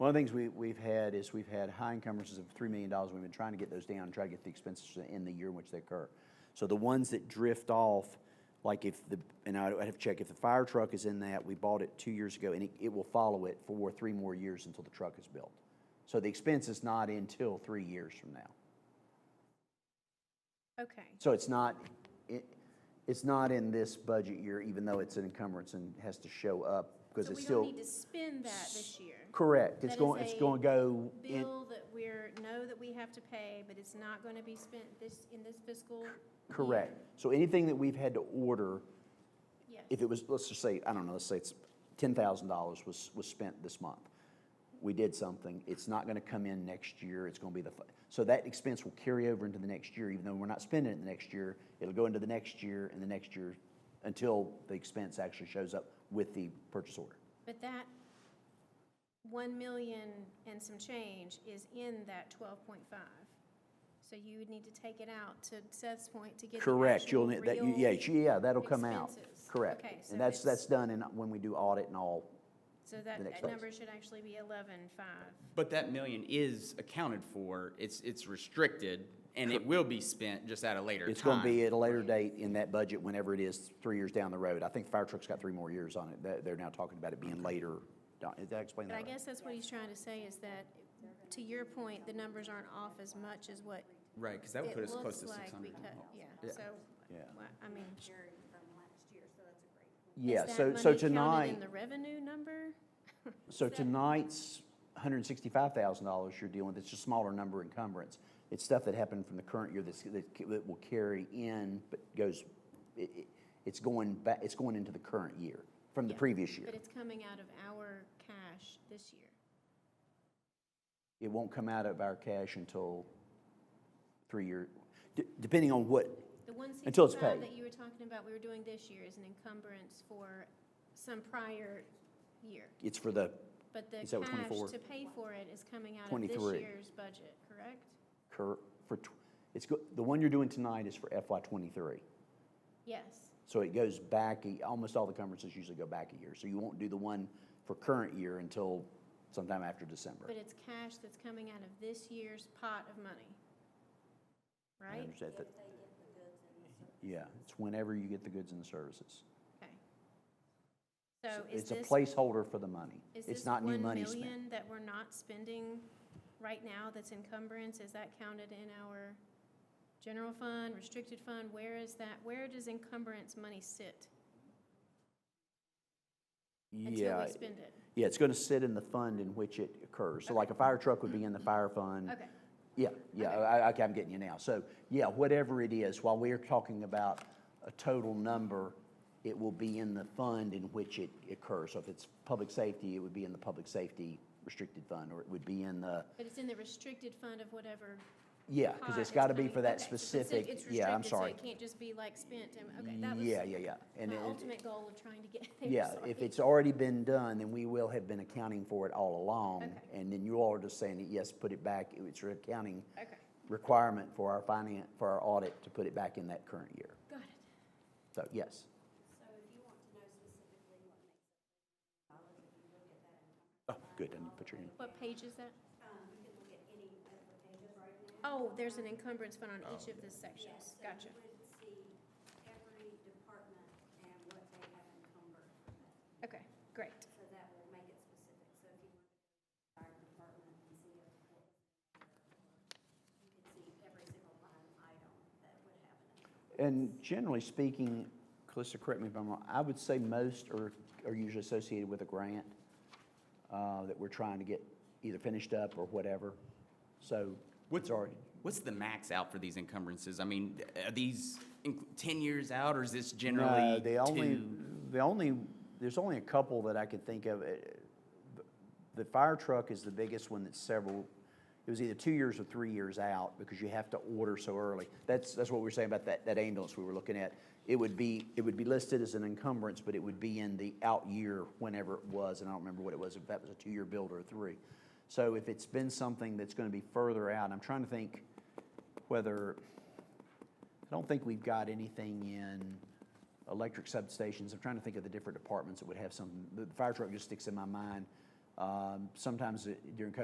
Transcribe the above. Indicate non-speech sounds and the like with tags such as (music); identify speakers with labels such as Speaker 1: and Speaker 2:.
Speaker 1: of the things we, we've had is we've had high encumbrances of $3 million. We've been trying to get those down, try to get the expenses in the year in which they occur. So the ones that drift off, like if the, and I I'd have to check, if the fire truck is in that, we bought it two years ago, and it, it will follow it for three more years until the truck is built. So the expense is not until three years from now.
Speaker 2: Okay,
Speaker 1: So it's not, it, it's not in this budget year, even though it's an encumbrance and has to show up, because
Speaker 2: so
Speaker 1: it's
Speaker 2: we
Speaker 1: still,
Speaker 2: don't need to spend that this year.
Speaker 1: correct, it's
Speaker 2: that is
Speaker 1: going, it's
Speaker 2: a
Speaker 1: going to go in,
Speaker 2: Bill that we're, know that we have to pay, but it's not going to be spent this, in this fiscal year.
Speaker 1: correct. So anything that we've had to order,
Speaker 2: Yes.
Speaker 1: if it was, let's just say, I don't know, let's say it's ten thousand dollars was, was spent this month. We did something, it's not gonna come in next year, it's gonna be the, fi- so that expense will carry over into the next year, even though we're not spending it the next year. It'll go into the next year and the next year until the expense actually shows up with the purchase order.
Speaker 2: But that one million and some change is in that twelve point five. So you would need to take it out to Seth's point to get the actual real.
Speaker 1: Correct, you'll, need- that, you- yeah, yeah, that'll come out,
Speaker 2: expenses.
Speaker 1: correct.
Speaker 2: Okay, so
Speaker 1: And that's,
Speaker 2: it's-
Speaker 1: that's done in, when we do audit and all,
Speaker 2: So that
Speaker 1: the next
Speaker 2: that
Speaker 1: phase.
Speaker 2: number should actually be eleven five.
Speaker 3: But that million is accounted for, it's, it's restricted, and it will be spent just at a later time.
Speaker 1: It's going to be at a later date in that budget, whenever it is, three years down the road. I think the fire truck's got three more years on it. They- They're now talking about it being later. Don- Did I explain
Speaker 2: But
Speaker 1: that
Speaker 2: I
Speaker 1: right?
Speaker 2: guess that's what he's trying to say is that, to your point, the numbers aren't off as much as what
Speaker 3: Right, because that would
Speaker 2: it
Speaker 3: put us
Speaker 2: looks
Speaker 3: close to six
Speaker 2: like
Speaker 3: hundred.
Speaker 2: because, yeah,
Speaker 3: Yeah.
Speaker 2: so,
Speaker 1: Yeah.
Speaker 2: why- I mean,
Speaker 1: Yeah,
Speaker 2: is
Speaker 1: so,
Speaker 2: that
Speaker 1: so
Speaker 2: money counted
Speaker 1: tonight,
Speaker 2: in the revenue number?
Speaker 1: so tonight's $165,000 you're dealing with, it's a smaller number encumbrance. It's stuff that happened from the current year that's, that c- that will carry in, but goes, it, it- it's going back, it's going into the current year, from the
Speaker 2: Yeah.
Speaker 1: previous year.
Speaker 2: But it's coming out of our cash this year.
Speaker 1: It won't come out of our cash until three year, d- depending on what,
Speaker 2: The one
Speaker 1: Until it's
Speaker 2: sixty-five
Speaker 1: paid.
Speaker 2: that you were talking about, we were doing this year is an encumbrance for some prior year.
Speaker 1: it's for the
Speaker 2: But the
Speaker 1: Is that what,
Speaker 2: cash
Speaker 1: 24?
Speaker 2: to pay for it is coming out of this
Speaker 1: 23.
Speaker 2: year's budget, correct?
Speaker 1: cur, for, tw- it's, go- the one you're doing tonight is for FY twenty-three.
Speaker 2: Yes.
Speaker 1: So it goes back, a- almost all the encumbrances usually go back a year. So you won't do the one for current year until sometime after December.
Speaker 2: But it's cash that's coming out of this year's pot of money,
Speaker 1: I
Speaker 2: right?
Speaker 1: understand that- Yeah, it's whenever you get the goods and the services.
Speaker 2: Okay. So is
Speaker 1: It's a
Speaker 2: this,
Speaker 1: placeholder for the money.
Speaker 2: is
Speaker 1: It's
Speaker 2: this
Speaker 1: not new
Speaker 2: one
Speaker 1: money spent.
Speaker 2: million that we're not spending right now that's encumbrance, is that counted in our general fund, restricted fund? Where is that, where does encumbrance money sit until
Speaker 1: Yeah,
Speaker 2: we spend it?
Speaker 1: yeah, it's gonna sit in the fund in which it occurs. So like a fire truck would be in the fire fund.
Speaker 2: Okay,
Speaker 1: Yeah, yeah,
Speaker 2: Okay.
Speaker 1: I, I- okay, I'm getting you now. So, yeah, whatever it is, while we're talking about a total number, it will be in the fund in which it occurs. So if it's public safety, it would be in the public safety restricted fund, or it would be in the,
Speaker 2: but it's in the restricted fund of whatever
Speaker 1: yeah, because
Speaker 2: pot
Speaker 1: it's gotta be
Speaker 2: coming-
Speaker 1: for that
Speaker 2: Ah, okay, so it's
Speaker 1: specific,
Speaker 2: it's
Speaker 1: yeah, I'm
Speaker 2: restricted, so
Speaker 1: sorry.
Speaker 2: it can't just be like spent, and, okay, that was.
Speaker 1: Yeah, yeah, yeah. And
Speaker 2: My
Speaker 1: it-
Speaker 2: ultimate goal of trying to get (laughs) there.
Speaker 1: yeah,
Speaker 2: sorry.
Speaker 1: if it's already been done, then we will have been accounting for it all along.
Speaker 2: Okay.
Speaker 1: And then you all are just saying, yes, put it back, it's an accounting
Speaker 2: Okay,
Speaker 1: requirement for our finance, for our audit to put it back in that current year.
Speaker 2: got it.
Speaker 1: So, yes. So if you want to know specifically what makes. Oh, good, I didn't put your hand up.
Speaker 2: What page is that? Oh, there's an encumbrance fund on each of the sections. Gotcha. Okay, great.
Speaker 1: And generally speaking, Calista, correct me if I'm wrong, I would say most are, are usually associated with a grant uh, that we're trying to get either finished up or whatever. So
Speaker 3: What-
Speaker 1: it's already,
Speaker 3: What's the max out for these encumbrances? I mean, are these in- ten years out, or is this generally
Speaker 1: No, the Uh, only,
Speaker 3: two?
Speaker 1: the only, there's only a couple that I can think of. Uh, The fire truck is the biggest one that's several, it was either two years or three years out because you have to order so early. That's, that's what we were saying about that, that ambulance we were looking at. It would be, it would be listed as an encumbrance, but it would be in the out year whenever it was, and I don't remember what it was, if that was a two-year build or a three. So if it's been something that's gonna be further out, I'm trying to think whether, I don't think we've got anything in electric substations. I'm trying to think of the different departments that would have something. The fire truck just sticks in my mind. Uh, Um, Sometimes it- during COVID